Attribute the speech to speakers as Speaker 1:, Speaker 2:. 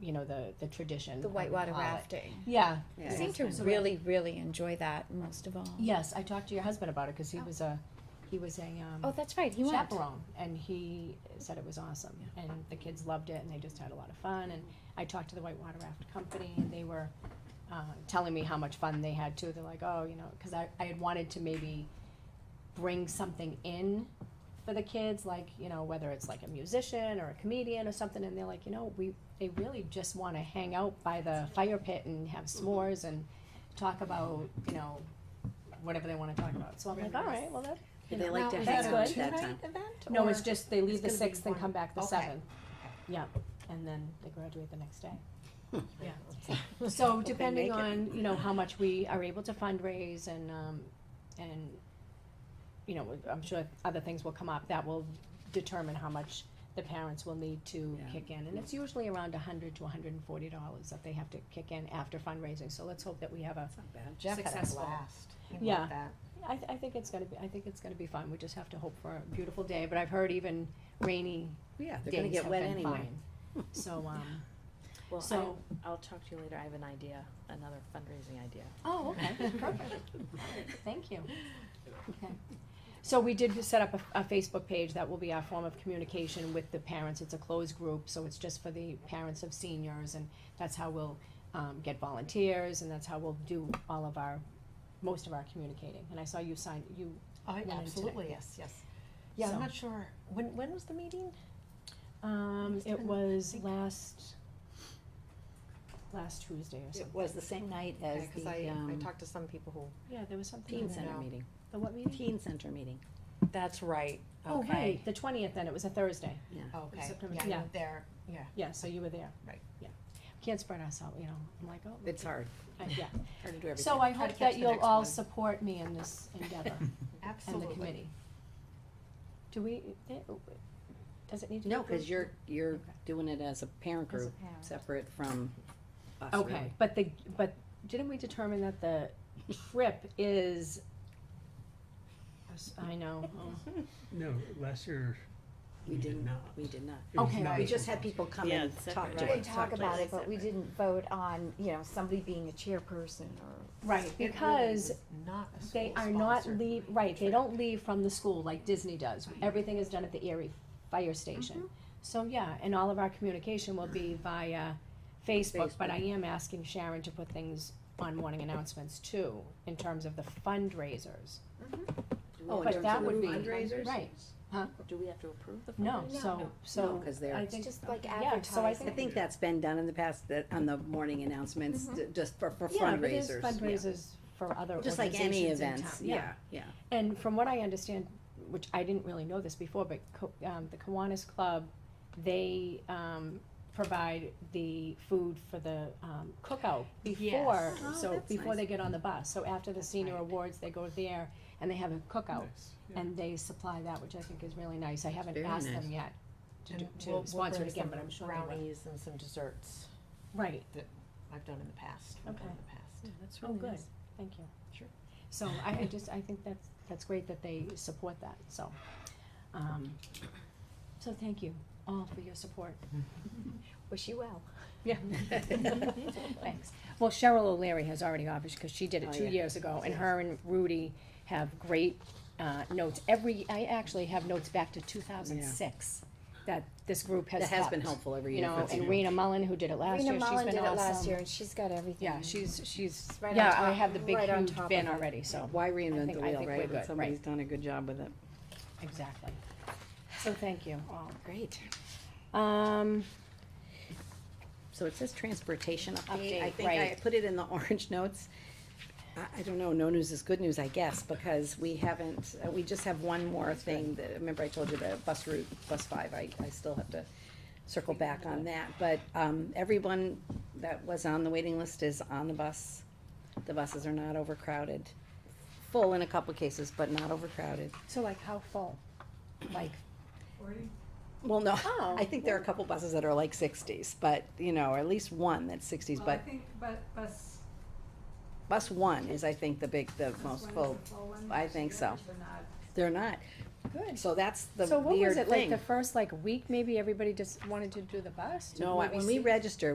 Speaker 1: you know, the, the tradition.
Speaker 2: The
Speaker 1: I would
Speaker 2: whitewater
Speaker 1: call it.
Speaker 2: rafting.
Speaker 1: Yeah,
Speaker 2: I
Speaker 3: Yeah.
Speaker 2: seem to
Speaker 1: So that-
Speaker 2: really, really enjoy that most of all.
Speaker 1: yes, I talked to your husband about it, cause he
Speaker 2: Oh.
Speaker 1: was a, he was a, um.
Speaker 2: Oh, that's right, he went.
Speaker 1: chaperone, and he said it was awesome, and the kids loved it, and they just had a lot of fun. And I talked to the Whitewater Raft Company, and they were uh, telling me how much fun they had too. They're like, oh, you know, because I, I had wanted to maybe bring something in for the kids, like you know, whether it's like a musician or a comedian or something, and they're like, you know, we they really just want to hang out by the fire pit and have
Speaker 2: Mm-hmm.
Speaker 1: s'mores and talk about you know whatever they want to talk about. So I'm like, all right, well that
Speaker 3: Do they like to
Speaker 1: is
Speaker 3: hang
Speaker 1: that a
Speaker 3: out at
Speaker 1: two-night
Speaker 3: that time?
Speaker 1: no, it's just they leave
Speaker 4: it's
Speaker 1: the
Speaker 4: gonna be
Speaker 1: sixth and
Speaker 4: one-
Speaker 1: come back the
Speaker 4: okay.
Speaker 1: seventh. Yeah, and then they graduate the next day. Yeah. So depending
Speaker 3: make it.
Speaker 1: on, you know, how much we are able to fundraise and, um, and, you know, I'm sure other things will come up, that will determine how much the parents will need to
Speaker 3: Yeah.
Speaker 1: kick in. And it's usually around a hundred to hundred and forty dollars that they have to kick in after fundraising, so let's hope that we have a,
Speaker 3: It's not bad.
Speaker 4: Jeff had a
Speaker 1: Successful.
Speaker 4: blast. He loved
Speaker 1: Yeah.
Speaker 4: that.
Speaker 1: I, th- I think it's gonna be, I think it's gonna be fun, we just have to hope for a beautiful day, but I've heard even rainy
Speaker 3: Yeah, they're gonna
Speaker 1: days
Speaker 3: get
Speaker 1: have
Speaker 3: wet
Speaker 1: been
Speaker 3: anyway.
Speaker 1: fine. So, um,
Speaker 5: Well,
Speaker 1: so,
Speaker 5: I, I'll talk to you later. I have an idea, another fundraising idea.
Speaker 1: oh, okay, perfect. Thank you. Okay. So we did set up a, a Facebook page that will be our form of communication with the parents. It's a closed group, so it's just for the parents of seniors and that's how we'll, um, get volunteers and that's how we'll do all of our, most of our communicating. And I saw you sign, you,
Speaker 4: I,
Speaker 1: Women Oh, today.
Speaker 4: absolutely, yes, yes. Yeah,
Speaker 1: So-
Speaker 4: I'm not sure, when, when was the meeting?
Speaker 1: um,
Speaker 4: Must have
Speaker 1: it
Speaker 4: been, I
Speaker 1: was
Speaker 4: think-
Speaker 1: last, last Tuesday or something.
Speaker 3: It was the same night as
Speaker 4: Because I,
Speaker 3: the,
Speaker 4: I
Speaker 3: um,
Speaker 4: talked to some people who,
Speaker 1: Yeah, there was something.
Speaker 3: teen
Speaker 1: on there.
Speaker 3: center
Speaker 4: No.
Speaker 3: meeting,
Speaker 1: The what meeting?
Speaker 3: teen center meeting.
Speaker 4: that's right,
Speaker 1: Oh,
Speaker 4: okay.
Speaker 1: right, the twentieth then, it was a Thursday.
Speaker 4: Oh, Okay,
Speaker 1: September-
Speaker 4: yeah,
Speaker 1: yeah.
Speaker 4: you were there, yeah.
Speaker 1: Yeah, so you were there.
Speaker 4: Right.
Speaker 1: Yeah. Can't spread us out, you know, I'm like, oh.
Speaker 3: It's hard,
Speaker 1: I- Yeah.
Speaker 3: hard to do everything.
Speaker 1: So I
Speaker 4: Try to
Speaker 1: hope
Speaker 4: catch
Speaker 1: that
Speaker 4: the
Speaker 1: you'll
Speaker 4: next
Speaker 1: all
Speaker 4: one.
Speaker 1: support me in this endeavor and the committee. Do we, eh, does it need to be?
Speaker 3: No, cause
Speaker 1: approved?
Speaker 3: you're, you're
Speaker 1: Okay.
Speaker 3: doing it as a parent
Speaker 5: As a
Speaker 3: group,
Speaker 5: parent.
Speaker 3: separate from us, really.
Speaker 1: Okay, but the, but didn't we determine that the trip is? I know, oh.
Speaker 6: No, last year,
Speaker 3: We
Speaker 6: we did
Speaker 3: didn't-
Speaker 6: not.
Speaker 3: We did not.
Speaker 6: It was
Speaker 1: Okay.
Speaker 6: not
Speaker 3: We
Speaker 6: a
Speaker 3: just had
Speaker 6: compromise.
Speaker 3: people come
Speaker 7: Yeah,
Speaker 3: and
Speaker 7: separate,
Speaker 3: talk
Speaker 7: right.
Speaker 3: to
Speaker 7: They
Speaker 2: We
Speaker 3: us.
Speaker 7: talk
Speaker 2: talked about it, but we
Speaker 7: Separate.
Speaker 2: didn't vote on, you know, somebody being a chairperson or
Speaker 1: right, because They are not leave, right, they don't leave from the school like Disney does. Everything is done at the Erie Fire Station. So, yeah, and all of our communication will be via Facebook, but I am asking Sharon to put things on morning announcements too, in terms of the fundraisers.
Speaker 3: Oh, in
Speaker 1: but
Speaker 3: terms
Speaker 1: that
Speaker 3: of
Speaker 1: would be-
Speaker 3: fundraisers?
Speaker 1: Right,
Speaker 5: Do we have to approve the fundraiser?
Speaker 1: no, so,
Speaker 3: No,
Speaker 1: so,
Speaker 3: cause
Speaker 1: I
Speaker 3: they're,
Speaker 1: think,
Speaker 2: just like
Speaker 1: Yeah, so I
Speaker 2: advertising.
Speaker 1: think-
Speaker 3: I think that's been done in the past, that, on the morning announcements, d- just for, for fundraisers.
Speaker 1: Mm-hmm. yeah, it is
Speaker 3: Yeah.
Speaker 1: fundraisers for other
Speaker 3: Just like any
Speaker 1: organizations in
Speaker 3: events,
Speaker 1: town.
Speaker 3: yeah, yeah.
Speaker 1: And from what I understand, which I didn't really know this before, but Ko- um, the Kiwanis Club, they um, provide the food for the um, cookout before,
Speaker 5: Yes.
Speaker 3: Oh,
Speaker 1: so
Speaker 3: that's
Speaker 1: before
Speaker 3: nice.
Speaker 1: they get on the bus. So after the senior
Speaker 5: right.
Speaker 1: awards, they go there and they have a cookout,
Speaker 6: Nice, yeah.
Speaker 1: and they supply that, which I think is really nice. I haven't
Speaker 3: Very
Speaker 1: asked
Speaker 3: nice.
Speaker 1: them yet to do- to sponsor it again, but I'm sure they will.
Speaker 4: Brownies and some desserts
Speaker 1: Right,
Speaker 4: that I've done in the past, we've done in the past.
Speaker 5: Yeah, that's
Speaker 1: oh,
Speaker 5: really
Speaker 1: good,
Speaker 5: nice.
Speaker 1: thank you.
Speaker 4: Sure.
Speaker 1: So I I just, I think that's, that's great that they support that, so. um, So thank you all for your support.
Speaker 2: wish you well.
Speaker 1: Yeah. Thanks. Well, Cheryl O'Leary has already offered, because she did
Speaker 3: Oh,
Speaker 1: it two
Speaker 3: yeah.
Speaker 1: years ago, and her and Rudy have great uh, notes. Every, I actually have notes back to two thousand six that this group has
Speaker 3: That has been
Speaker 1: kept,
Speaker 3: helpful every
Speaker 1: You
Speaker 3: year.
Speaker 1: know,
Speaker 3: for
Speaker 1: and
Speaker 3: seniors.
Speaker 1: Rena Mullen, who did it last year,
Speaker 2: Rena
Speaker 1: she's been
Speaker 2: Mullen
Speaker 1: awesome.
Speaker 2: did it last year and she's got everything.
Speaker 1: Yeah, she's, she's,
Speaker 2: right on
Speaker 1: yeah, I
Speaker 2: top-
Speaker 1: have the big
Speaker 2: right on
Speaker 1: huge
Speaker 2: top
Speaker 1: bin
Speaker 2: of it.
Speaker 1: already, so,
Speaker 3: Why
Speaker 1: I
Speaker 3: reinvent
Speaker 1: think-
Speaker 3: the
Speaker 1: I
Speaker 3: wheel,
Speaker 1: think we're
Speaker 3: right,
Speaker 1: good,
Speaker 3: when
Speaker 1: right.
Speaker 3: somebody's done a good job with it?
Speaker 1: exactly. So thank you all.
Speaker 3: Great.
Speaker 1: Um,
Speaker 3: So it says transportation update, I
Speaker 1: Update,
Speaker 3: think I
Speaker 1: right.
Speaker 3: put it in the orange notes. I, I don't know, no news is good news, I guess, because we haven't, uh, we just have one more thing, that, remember I told you the bus route, bus five, I, I still have to circle back on that, but, um, everyone that was on the waiting list is on the bus. The buses are not overcrowded, full in a couple cases, but not overcrowded.
Speaker 1: so like how full? Like,
Speaker 3: Well, no,
Speaker 1: Oh.
Speaker 3: I think there are a couple buses that are like sixties, but, you know, or at least one that's sixties,
Speaker 8: Well, I
Speaker 3: but
Speaker 8: think bu- bus.
Speaker 3: Bus one is, I think, the big, the most full. I think so. They're not.
Speaker 1: good.
Speaker 3: So that's the
Speaker 1: So what was
Speaker 3: weird
Speaker 1: it, like the
Speaker 3: thing.
Speaker 1: first like week, maybe everybody just wanted to do the bus? Did
Speaker 3: No, I-
Speaker 1: maybe
Speaker 3: when we
Speaker 1: see-
Speaker 3: register,